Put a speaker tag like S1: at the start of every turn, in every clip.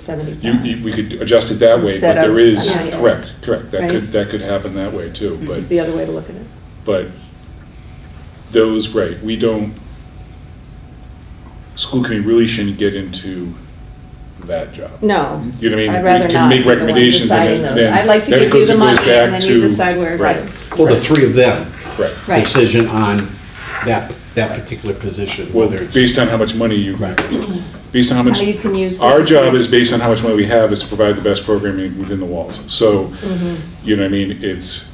S1: seventy-five.
S2: You, you- we could adjust it that way, but
S1: Instead of-
S2: there is,
S1: Yeah, yeah.
S2: correct, correct, that could,
S1: Right.
S2: that could happen that way too,
S1: Is
S2: but,
S1: the other way to look at it.
S2: but those, right, we don't, school committee really shouldn't get into that job.
S1: No.
S2: You know what I mean?
S1: I'd rather not
S2: We can
S1: be
S2: make
S1: the one
S2: recommendations and
S1: deciding
S2: then-
S1: those.
S2: then-
S1: I'd like to
S2: then it
S1: give you
S2: goes-
S1: the
S2: it goes
S1: money and
S2: back
S1: then you
S2: to-
S1: decide where it goes.
S3: Well, the three of them,
S2: Right.
S1: Right.
S3: decision on that, that particular position,
S2: Well,
S3: whether it's.
S2: based on how much money you,
S3: Right.
S2: based on how much.
S1: How you can use the-
S2: Our job is based on how much money we have, is to provide the best programming within the walls. So,
S1: Mm-hmm.
S2: you know what I mean, it's,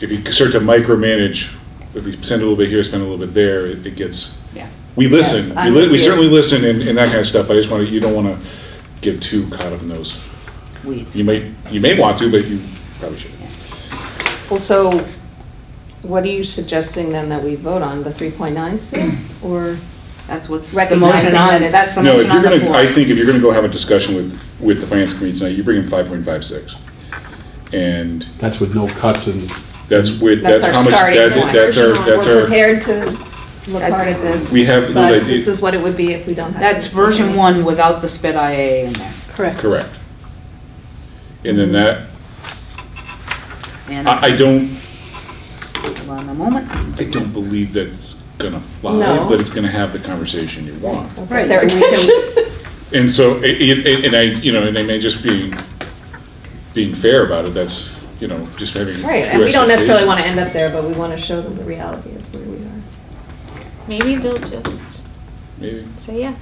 S2: if you start to micromanage, if we spend a little bit here, spend a little bit there, it it gets,
S4: Yeah.
S2: we
S1: Yes,
S2: listen, we
S1: I'm
S2: li-
S1: with you.
S2: we certainly listen and and that kind of stuff, but I just want to, you don't want to get too caught up in those.
S4: Weeds.
S2: You may, you may want to, but you probably shouldn't.
S1: Well, so what are you suggesting then that we vote on, the three point nine still? Or
S4: That's what's. the
S1: recognizing
S4: motion
S1: that
S4: on,
S1: it's?
S4: that's the
S2: No, if
S4: motion
S2: you're
S4: on the
S2: gonna,
S4: floor.
S2: I think if you're gonna go have a discussion with, with the finance committee tonight, you bring in five point five six. And
S3: That's with no cuts and,
S2: that's with,
S1: Mm-hmm. That's
S2: that's
S1: our
S2: how much,
S1: starting
S2: that's,
S1: point.
S2: that's our, that's
S1: We're
S2: our,
S1: prepared to look
S4: That's-
S1: hard at this.
S2: we have-
S1: But this is what it would be if we don't have.
S4: That's
S1: it.
S4: version one without the sped IA in there.
S1: Correct.
S2: correct. And then that,
S4: And,
S2: I, I don't,
S4: hold on a moment.
S2: I don't believe that's gonna
S1: No.
S2: fly, but it's gonna have the conversation you want.
S1: Right, their attention.
S2: And so, i- i- and I, you know, and I may just be, being fair about it, that's, you know, just having.
S1: Right, and
S2: true
S1: we don't necessarily
S2: expectations.
S1: want to end up there, but we want to show them the reality of where we are.
S5: Maybe they'll just
S2: Maybe.
S5: say yes.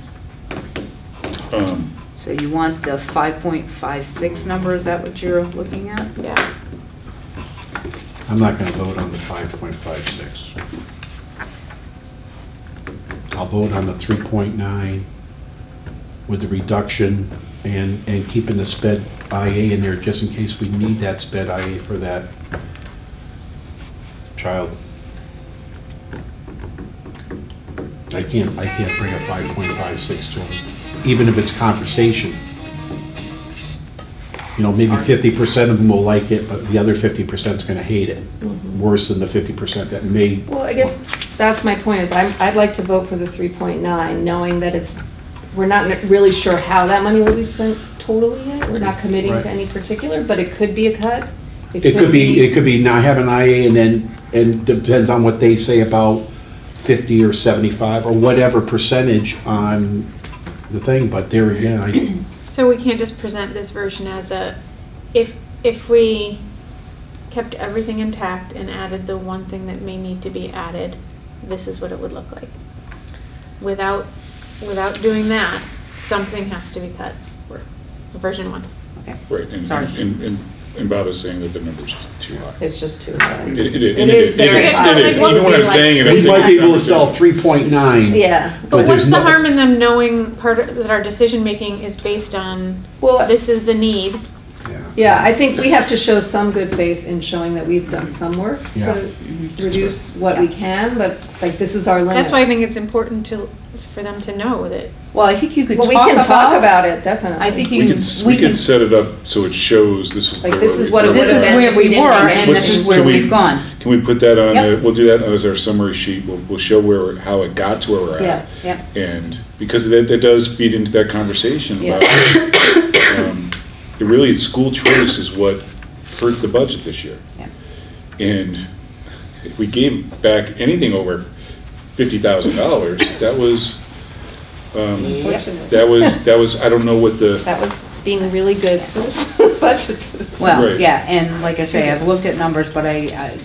S2: Um,
S4: So you want the 5.56 number, is that what you're looking at?
S5: Yeah.
S3: I'm not gonna vote on the five point five six. I'll vote on the three point nine with the reduction and, and keeping the sped IA in there just in case we need that sped IA for that child. I can't, I can't bring a five point five six to them, even if it's conversation. You know, maybe
S4: Sorry.
S3: fifty percent of them will like it, but the other fifty percent's gonna hate it,
S5: Mm-hmm.
S3: worse than the fifty percent that may.
S1: Well, I guess that's my point, is I'm, I'd like to vote for the three point nine, knowing that it's, we're not n- really sure how that money will be spent totally yet. We're not committing
S3: Right.
S1: to any particular, but it could be a cut.
S3: It could be, it could be not have an IA and then, and depends on what they say about fifty or seventy-five or whatever percentage on the thing, but there again, I,
S5: So we can't just present this version as a, if, if we kept everything intact and added the one thing that may need to be added, this is what it would look like. Without, without doing that, something has to be cut, version one.
S4: Okay.
S2: Right, and,
S4: Sorry.
S2: and, and- and Bob is saying that the number's just too high.
S1: It's just too
S2: It,
S1: bad.
S2: it, it
S1: It is
S2: is, it
S1: very
S2: is,
S1: high.
S2: it is,
S1: Like, what
S2: even
S1: would
S2: when I'm
S1: be
S2: saying it,
S1: like-
S2: I'm
S3: we
S2: saying.
S3: might be able to
S2: it's
S3: sell
S2: not-
S3: three point nine.
S1: Yeah,
S5: But
S3: But
S5: what's
S3: there's
S5: the
S3: no-
S5: harm in them knowing part, of- that our decision-making is based on,
S1: well,
S5: this is the need?
S1: yeah, I think we have to show some good faith in showing that we've done some work
S3: Yeah.
S1: to reduce what we can, but like, this is our limit.
S5: That's why I think it's important to, for them to know that
S4: Well, I think you could
S1: Well,
S4: talk
S1: we can talk
S4: about,
S1: about it, definitely.
S4: I think you
S2: We
S4: can,
S2: could, we could set it up so it shows this is.
S1: Like,
S2: the-
S1: this is what it
S2: where we-
S4: this is
S1: Would've
S4: where
S1: been if we
S4: we
S1: didn't
S4: were
S1: have
S4: and
S1: Let's-
S4: this is where
S2: can we-
S4: we've gone.
S2: Can we put that on,
S4: Yep.
S2: a- we'll do that as our summary sheet, we'll, we'll show where, how it got to where we're
S1: Yeah.
S2: at.
S4: Yep.
S2: And, because that, that does feed into that conversation
S1: Yeah.
S2: about, um, it really, school choice is what hurt the budget this year.
S4: Yeah.
S2: And if we gave back anything over fifty thousand dollars, that was, um,
S1: Fortunately.
S2: that was, that was, I don't know what the,
S1: That was being really good to the budgets.
S4: Well,
S2: Right.
S4: yeah, and like I say, I've looked at numbers, but I, I-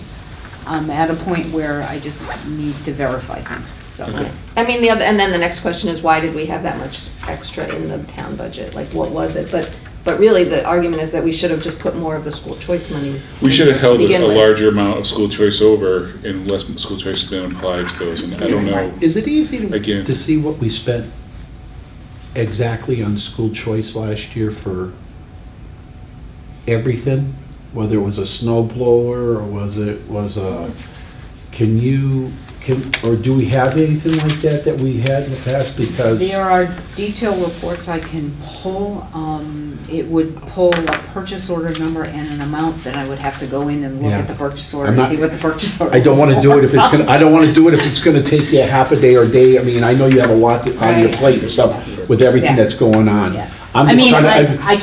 S4: I'm at a point where I just need to verify things, so.
S2: Okay.
S1: I mean, the other, and then the next question is, why did we have that much extra in the town budget? Like, what was it? But, but really, the argument is that we should have just put more of the school choice monies.
S2: we should have held
S1: to
S2: a
S1: begin
S2: a
S1: with.
S2: larger amount of school choice over and less school choice has been applied to those, and I don't know.
S3: Is it easy to,
S2: Again.
S3: to see what we spent exactly on school choice last year for everything? Whether it was a snow blower or was it, was a, can you, can, or do we have anything like that that we had in the past? Because,
S4: There are detailed reports I can pull. Um, It would pull a purchase order number and an amount, then I would have to go in and look
S3: Yeah.
S4: at the purchase order,
S3: I'm
S4: and
S3: not-
S4: see what the purchase order
S3: I don't want to do it if it's going, to I don't want to do it if it's going to take you half a day or day. I mean, I know you have a lot to- on your
S4: Right.
S3: plate and stuff with everything
S4: Yeah.
S3: that's going on.
S4: Yeah.
S3: I'm
S4: I
S3: just
S4: mean,
S3: trying to.
S4: I, I